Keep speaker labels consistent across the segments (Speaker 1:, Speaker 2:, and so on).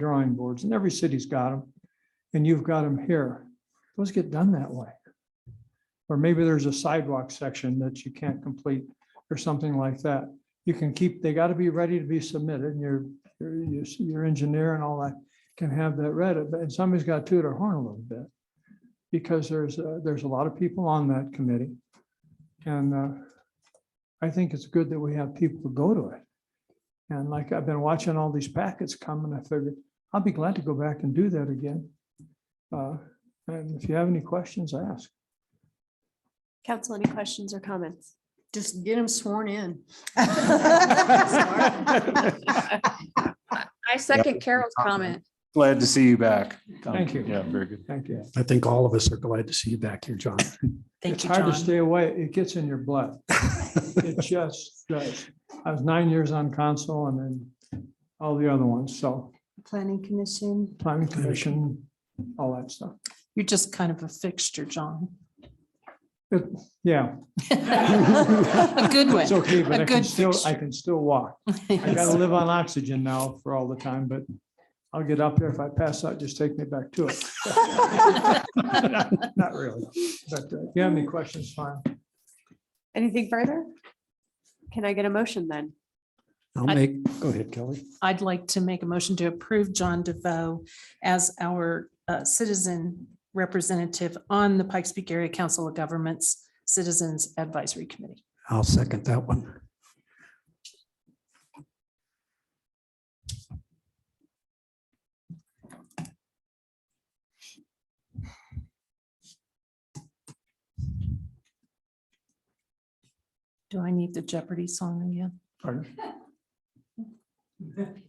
Speaker 1: drawing boards, and every city's got them, and you've got them here. Those get done that way. Or maybe there's a sidewalk section that you can't complete or something like that. You can keep, they got to be ready to be submitted, and your, your- your, your engineer and all that can have that ready, but somebody's got to toot their horn a little bit. Because there's, uh, there's a lot of people on that committee. And uh, I think it's good that we have people to go to it. And like I've been watching all these packets come and I figured, I'll be glad to go back and do that again. Uh, And if you have any questions, ask.
Speaker 2: Council, any questions or comments?
Speaker 3: Just get them sworn in.
Speaker 4: I second Carol's comment.
Speaker 5: Glad to see you back. Tom.
Speaker 1: Thank you.
Speaker 5: Yeah, very good.
Speaker 1: Thank you.
Speaker 6: I think all of us are glad to see you back here, John.
Speaker 1: It's hard to stay away. It gets in your blood. It just does. I was nine years on council and then all the other ones. So
Speaker 3: Planning Commission.
Speaker 1: planning commission, all that stuff.
Speaker 7: You're just kind of a fixture, John.
Speaker 1: Yeah,
Speaker 7: A good
Speaker 1: it's
Speaker 7: one.
Speaker 1: okay, but
Speaker 7: A
Speaker 1: I can
Speaker 7: good
Speaker 1: still, I
Speaker 7: fixture.
Speaker 1: can still walk. I gotta live on oxygen now for all the time, but I'll get up there. If I pass out, just take me back to it. Not really, but uh, if you have any questions, fine.
Speaker 2: Anything further? Can I get a motion then?
Speaker 6: I'll make, go ahead, Kelly.
Speaker 7: I'd like to make a motion to approve John DeVoe as our uh, citizen representative on the Pikes Peak Area Council of Governments Citizens Advisory Committee.
Speaker 6: I'll second that one.
Speaker 7: Do I need the Jeopardy song again?
Speaker 1: Pardon?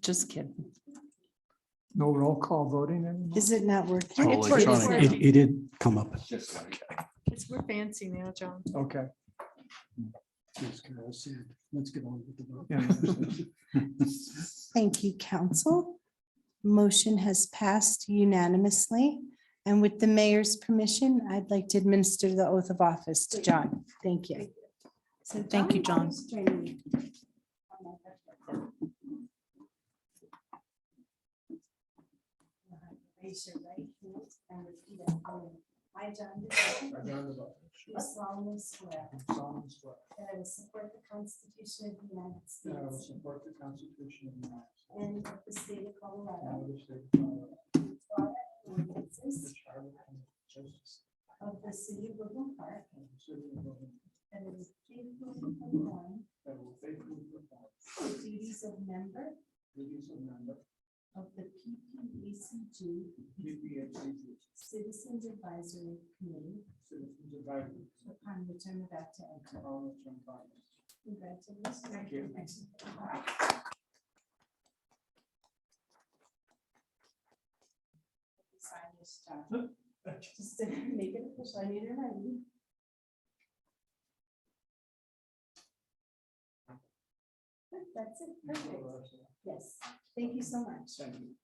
Speaker 7: Just kidding.
Speaker 1: No roll call voting anymore?
Speaker 3: Is it not working?
Speaker 5: All
Speaker 3: It's working.
Speaker 5: electronic.
Speaker 6: It, it did come up.
Speaker 3: We're fancy now, John.
Speaker 1: Okay.
Speaker 6: Let's get on with the vote.
Speaker 1: yeah,
Speaker 3: Thank you, council. Motion has passed unanimously. And with the mayor's permission, I'd like to administer the oath of office to John. Thank you. So
Speaker 7: Thank you, John.
Speaker 3: please join me. Raise your right hand and repeat after me. I, John DeVoe, do solemnly swear that I will support the Constitution of the United States
Speaker 1: support the Constitution of the United States.
Speaker 3: and of the state of
Speaker 1: and
Speaker 3: Colorado.
Speaker 1: of the state of Colorado,
Speaker 3: and follow the ordinances
Speaker 1: which I will and justice
Speaker 3: Of the city of Woodland Park
Speaker 1: and the city of Logan,
Speaker 3: and will faithfully perform
Speaker 1: that will faithfully perform
Speaker 3: the duties of member
Speaker 1: the duties of member
Speaker 3: of the PPACG
Speaker 1: PPHC
Speaker 3: Citizens Advisory Committee
Speaker 1: Citizens Advisory
Speaker 3: upon which I'm about to enter.
Speaker 1: College and Congress.
Speaker 3: Congratulations.
Speaker 1: Thank you.
Speaker 3: Sign this down. Just to make it official, I need it ready. That's it, perfect. Yes, thank you so much.
Speaker 1: Thank you.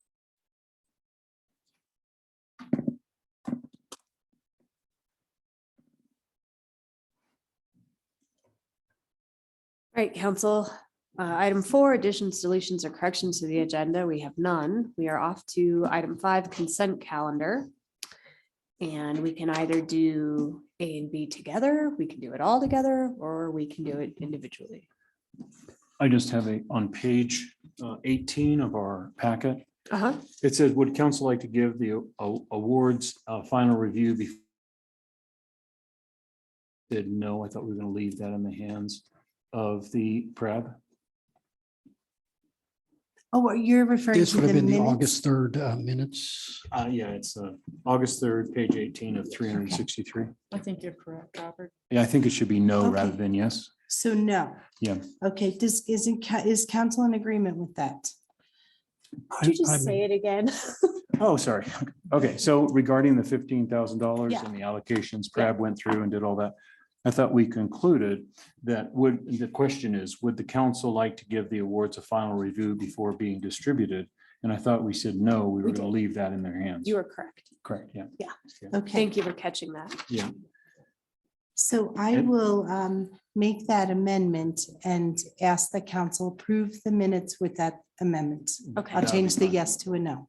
Speaker 2: All right, council, uh, item four, additions, deletions, or corrections to the agenda. We have none. We are off to item five, consent calendar. And we can either do A and B together, we can do it all together, or we can do it individually.
Speaker 5: I just have a, on page uh, eighteen of our packet,
Speaker 2: Uh-huh.
Speaker 5: it says, would council like to give the a- awards a final review before? Did no, I thought we were going to leave that in the hands of the prep.
Speaker 3: Oh, what you're referring
Speaker 6: This
Speaker 3: to
Speaker 6: would have
Speaker 3: the
Speaker 6: been the
Speaker 3: minutes?
Speaker 6: August third uh, minutes.
Speaker 5: Uh, yeah, it's uh, August third, page eighteen of three hundred and sixty-three.
Speaker 7: I think you're correct, Robert.
Speaker 5: Yeah, I think it should be no
Speaker 3: Okay.
Speaker 5: rather than yes.
Speaker 3: So no.
Speaker 5: Yeah.
Speaker 3: Okay, does, isn't, ca- is council in agreement with that?
Speaker 2: Could you just say it again?
Speaker 5: Oh, sorry. Okay, so regarding the fifteen thousand dollars
Speaker 2: Yeah.
Speaker 5: and the allocations, Crab went through and did all that. I thought we concluded that would, the question is, would the council like to give the awards a final review before being distributed? And I thought we said, no, we were
Speaker 2: We
Speaker 5: going to leave that in their hands.
Speaker 2: You are correct.
Speaker 5: Correct, yeah.
Speaker 3: Okay,
Speaker 2: Thank you for catching that.
Speaker 3: so I
Speaker 5: And-
Speaker 3: will um, make that amendment and ask the council approve the minutes with that amendment.
Speaker 2: Okay.
Speaker 3: I'll
Speaker 5: That'd be
Speaker 3: change the
Speaker 5: fine.
Speaker 3: yes to a no.